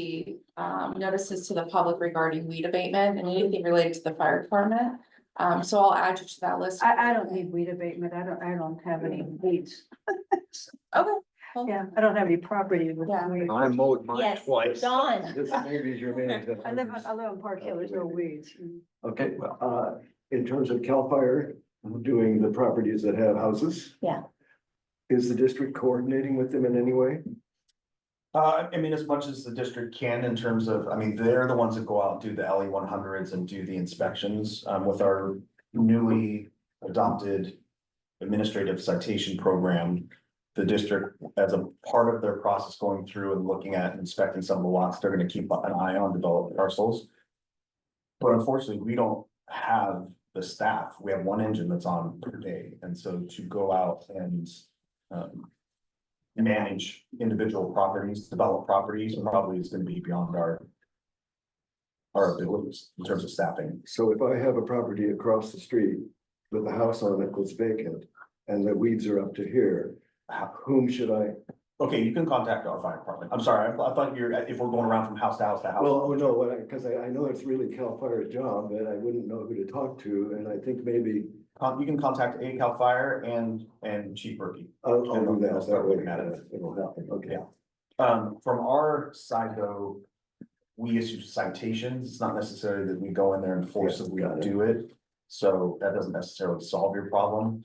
the, um, notices to the public regarding weed abatement and anything related to the fire department. Um, so I'll add you to that list. I, I don't need weed abatement. I don't, I don't have any weeds. Okay, Yeah, I don't have any property with Yeah. weeds. I mowed mine Yes, twice. Dawn. This maybe is your main. I live on, I live on Park Hill. There's no weeds. Okay, well, uh, in terms of CAL FIRE, doing the properties that have houses. Yeah. Is the district coordinating with them in any way? Uh, I mean, as much as the district can in terms of, I mean, they're the ones that go out, do the LE one hundreds and do the inspections, um, with our newly adopted administrative citation program. The district, as a part of their process going through and looking at and inspecting some of the lots, they're gonna keep an eye on developed parcels. But unfortunately, we don't have the staff. We have one engine that's on per day, and so to go out and um, manage individual properties, develop properties, probably is gonna be beyond our. Our abilities in terms of staffing. So if I have a property across the street with a house on it that's vacant and the weeds are up to here, How- whom should I? Okay, you can contact our fire department. I'm sorry, I I thought you're, if we're going around from house to house to house. Well, oh no, what I, because I, I know it's really CAL FIRE's job, but I wouldn't know who to talk to, and I think maybe Con- You can contact A Cal Fire and, and Chief Berkey. I'll, I'll do I'll that. start That way looking at it. it'll happen, okay. Yeah. Um, from our side though, we issue citations. It's not necessarily that we go in there and forcibly Yeah, got it. do it. So that doesn't necessarily solve your problem.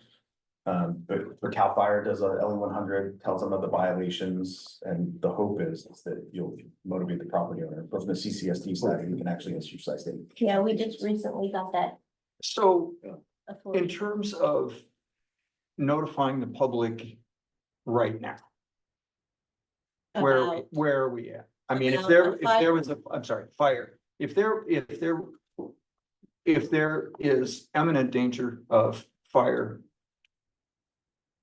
Um, but for Cal Fire does a LE one hundred, tells them of the violations and the hope is, is that you'll motivate the property owner. But from the CCSD side, you can actually issue citation. Yeah, we just recently got that. So in authority. terms of notifying the public right now, where, About- where are we at? I mean, if about there, a if there was a, I'm sorry, fire, if there, if there, if there is imminent danger of fire,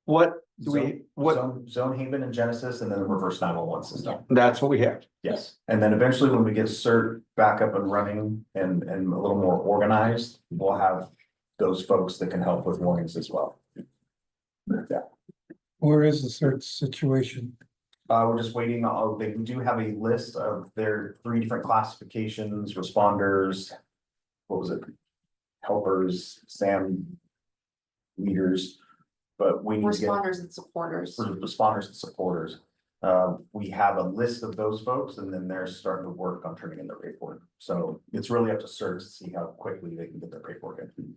what do we, what, Zone, Zone Haven and Genesis and then the reverse nine one one system. that's what we have. Yes, and then eventually when we get cert back up and running and, and a little more organized, we'll have those folks that can help with warnings as well. Yeah, Where is the search situation? uh, we're just waiting, uh, they do have a list of their three different classifications, responders. What was it? Helpers, SAM. Leaders, but we need to get. responders and supporters. sort of responders and supporters. Uh, we have a list of those folks and then they're starting to work on turning in their paperwork. So it's really up to CERT to see how quickly they can get their paperwork in.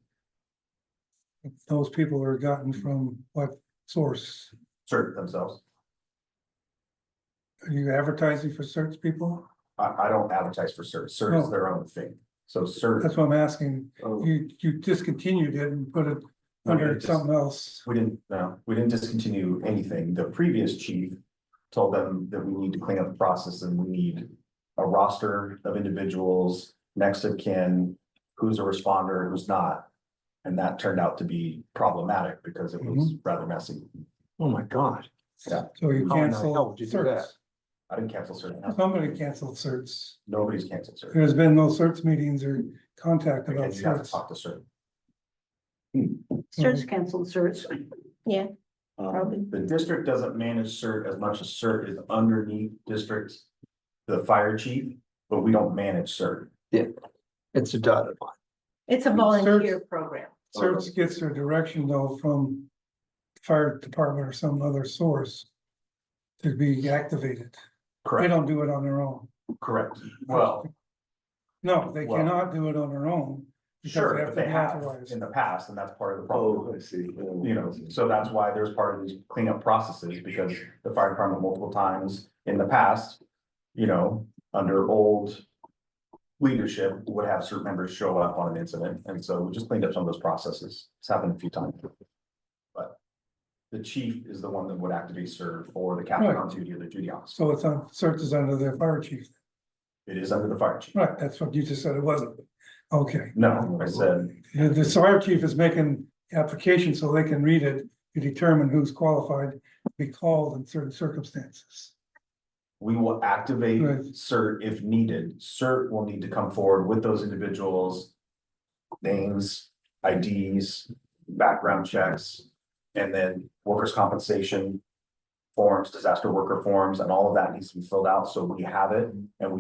Those people are gotten from what source? CERT themselves. Are you advertising for search people? I, I don't advertise for CERT. CERT is their own thing. So CERT, Oh. That's what I'm asking. Oh, You, you discontinued it and put it under something else. we didn't, no, we didn't discontinue anything. The previous chief told them that we need to clean up the process and we need a roster of individuals, next of kin, who's a responder, who's not. And that turned out to be problematic because it was rather messy. Oh, my God. So you How in the hell canceled would you do search. I didn't cancel certain, Somebody canceled certs. nobody's canceled certain. There's been no search meetings or contact about Again, you have to certs. talk to certain. Search canceled search. Um, the district doesn't manage cert as much as cert is underneath districts, the fire chief, but we don't manage cert. It's a dotted line. It's a volunteer program. Search gets their direction though from fire department or some other source to be activated. They Correct, don't do it on their own. correct. Well, No, they Well- cannot do it on their own. because sure, but have to they be have authorized. in the past, and that's part of the problem. Oh, I see. You know, so that's why there's part of these cleanup processes, because the fire department multiple times in the past, you know, under old. Leadership would have certain members show up on an incident, and so we just cleaned up some of those processes, it's happened a few times. But the chief is the one that would actively serve for the captain on duty or the duty officer, So it's on, search is under the fire chief. it is under the fire chief, Right, that's what you just said, it wasn't. Okay, no, I said, the, the fire chief is making application so they can read it to determine who's qualified to be called in certain circumstances. We will activate Right. CERT if needed. CERT will need to come forward with those individuals. Names, IDs, background checks, and then workers' compensation. Forms, disaster worker forms, and all of that needs to be filled out, so we have it and we